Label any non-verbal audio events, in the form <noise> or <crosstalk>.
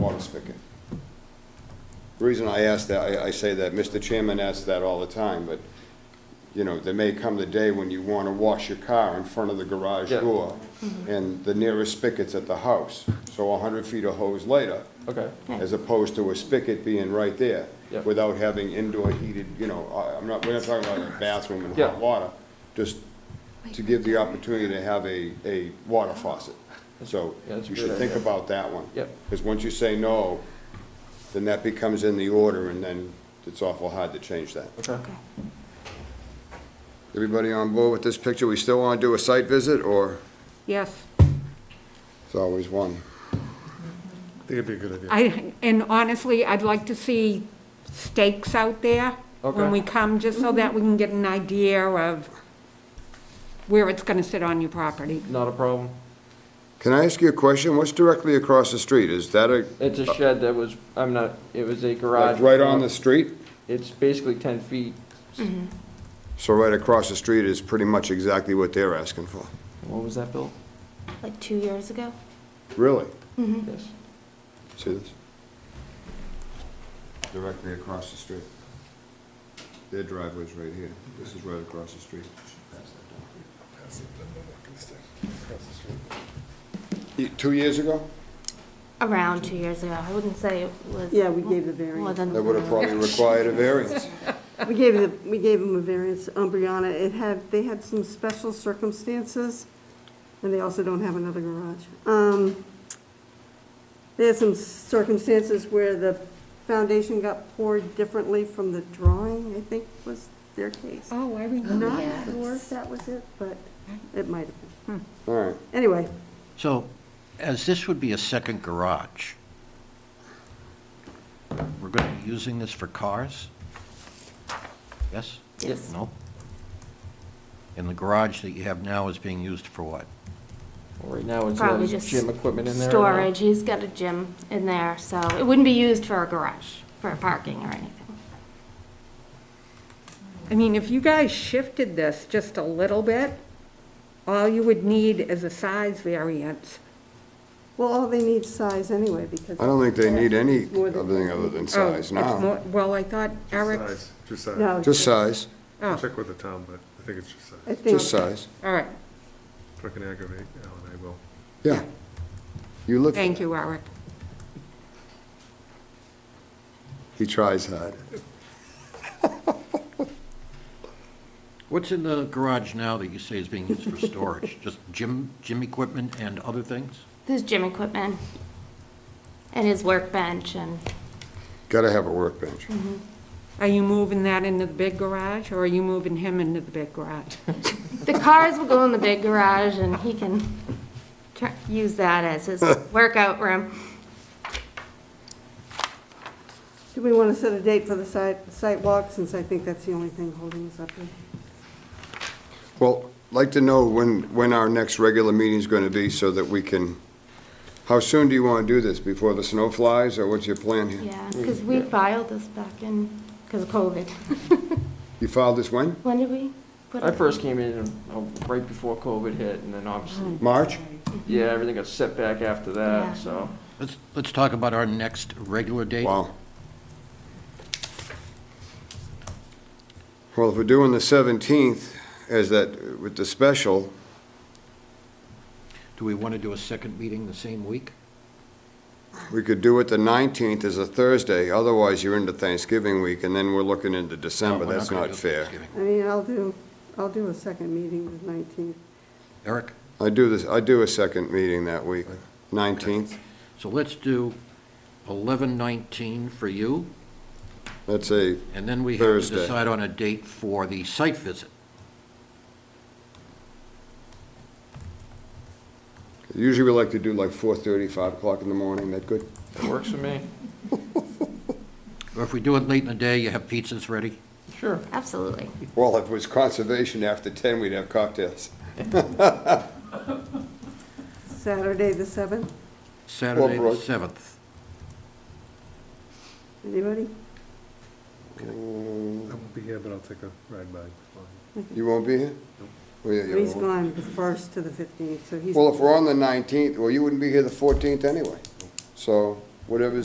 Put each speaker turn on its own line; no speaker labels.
spigot. The reason I ask that, I, I say that, Mr. Chairman asks that all the time, but, you know, there may come the day when you wanna wash your car in front of the garage
Yeah.
door, and the nearest spigot's at the house, so a hundred feet of hose later,
Okay,
as opposed to a spigot being right there,
Yeah.
without having indoor heated, you know, I- I'm not, we're not talking about a bathroom and
Yeah.
hot water, just to give the opportunity to have a, a water faucet. So
Yeah, that's a
you should
good
think
idea.
about that one.
Yep.
Because once you say no, then that becomes in the order, and then it's awful hard to change that.
okay.
Everybody on board with this picture? We still want to do a site visit, or
Yes,
it's always one?
I think it'd be a good idea.
I, and honestly, I'd like to see stakes out there
Okay.
when we come, just so that we can get an idea of where it's gonna sit on your property.
Not a problem.
Can I ask you a question? What's directly across the street? Is that a,
It's a shed that was, I'm not, it was a garage.
Uh, like, right on the street?
It's basically ten feet.
So right across the street is pretty much exactly what they're asking for.
What was that built?
like two years ago.
Really? Mm-hmm.
Yes.
See this? Directly across the street. Their driveway's right here. This is right across the street. Y- Two years ago?
Around two years ago. I wouldn't say it was.
Yeah, we gave the
More
variance.
than.
That would have probably required a
<laughs>
variance.
We gave the, we gave them a variance, um, Brianna, it had, they had some special circumstances, and they also don't have another garage. Um, they had some circumstances where the foundation got poured differently from the drawing, I think was their case.
Oh, I
Not
yeah.
sure if that was it, but it might have been.
All right.
Anyway,
So, as this would be a second garage, we're going to be using this for cars? Yes?
Yes.
No? And the garage that you have now is being used for what?
Right now, it's
Probably
has
just.
gym equipment in there. now.
Storage. He's got a gym in there, so it wouldn't be used for a garage, for parking or anything.
I mean, if you guys shifted this just a little bit, all you would need is a size variance.
well, all they need size anyway, because.
I don't think they need any
More than-
other thing other than
Oh,
size
it's
now.
more- Well, I thought Eric's,
Size, Just size.
No.
Just size,
oh,
Check with the town, but I think it's just size.
I think-
just size.
all right,
If I can aggravate, Alan, I will.
Yeah. You look.
thank you, Eric.
He tries hard.
What's in the garage now that you say is being used for storage? Just gym, gym equipment and other things?
His gym equipment and his workbench and
Gotta have a workbench.
Are you moving that into the big garage, or are you moving him into the big garage?
the cars will go in the big garage and he can tr- use that
<laughs>
as his workout room.
Do we want to set a date for the site, site walk, since I think that's the only thing holding us up here?
Well, I'd like to know when, when our next regular meeting's going to be so that we can, how soon do you want to do this? Before the snow flies, or what's your plan here?
Yeah, because we filed this back in, because of COVID. <laughs>
You filed this when?
When did we? put
I
it?
first came in uh, right before COVID hit, and then obviously,
March?
yeah, everything got set back after
Yeah.
that, so.
Let's, let's talk about our next regular date.
Wow. Well, if we're doing the 17th, as that, with the special,
Do we want to do a second meeting the same week?
we could do it the 19th as a Thursday, otherwise you're into Thanksgiving week, and then we're looking into
No,
December.
we're
That's
gonna
not
do
fair.
Thanksgiving.
I mean, I'll do, I'll do a second meeting the 19th.
Eric?
I do this, I do a second meeting that week, 19th.
So let's do 11:19 for you,
That's a
and then we have to
Thursday.
decide on a date for the site visit.
Usually we like to do like 4:30, 5 o'clock in the morning, that good?
It works for me.
Or if we do it late in the day, you have pizzas ready?
Sure.
Absolutely.
Well, if it was conservation after 10, we'd have cocktails.
Saturday, the 7th,
Saturday, the
Brooke.
7th.
anybody?
Mm,
I won't be here, but I'll take a ride by.
You won't be here? Well, yeah, you
He's
won't.
gone the 1st to the 15th, so he's.
Well, if we're on the 19th, well, you wouldn't be here the 14th anyway. So whatever's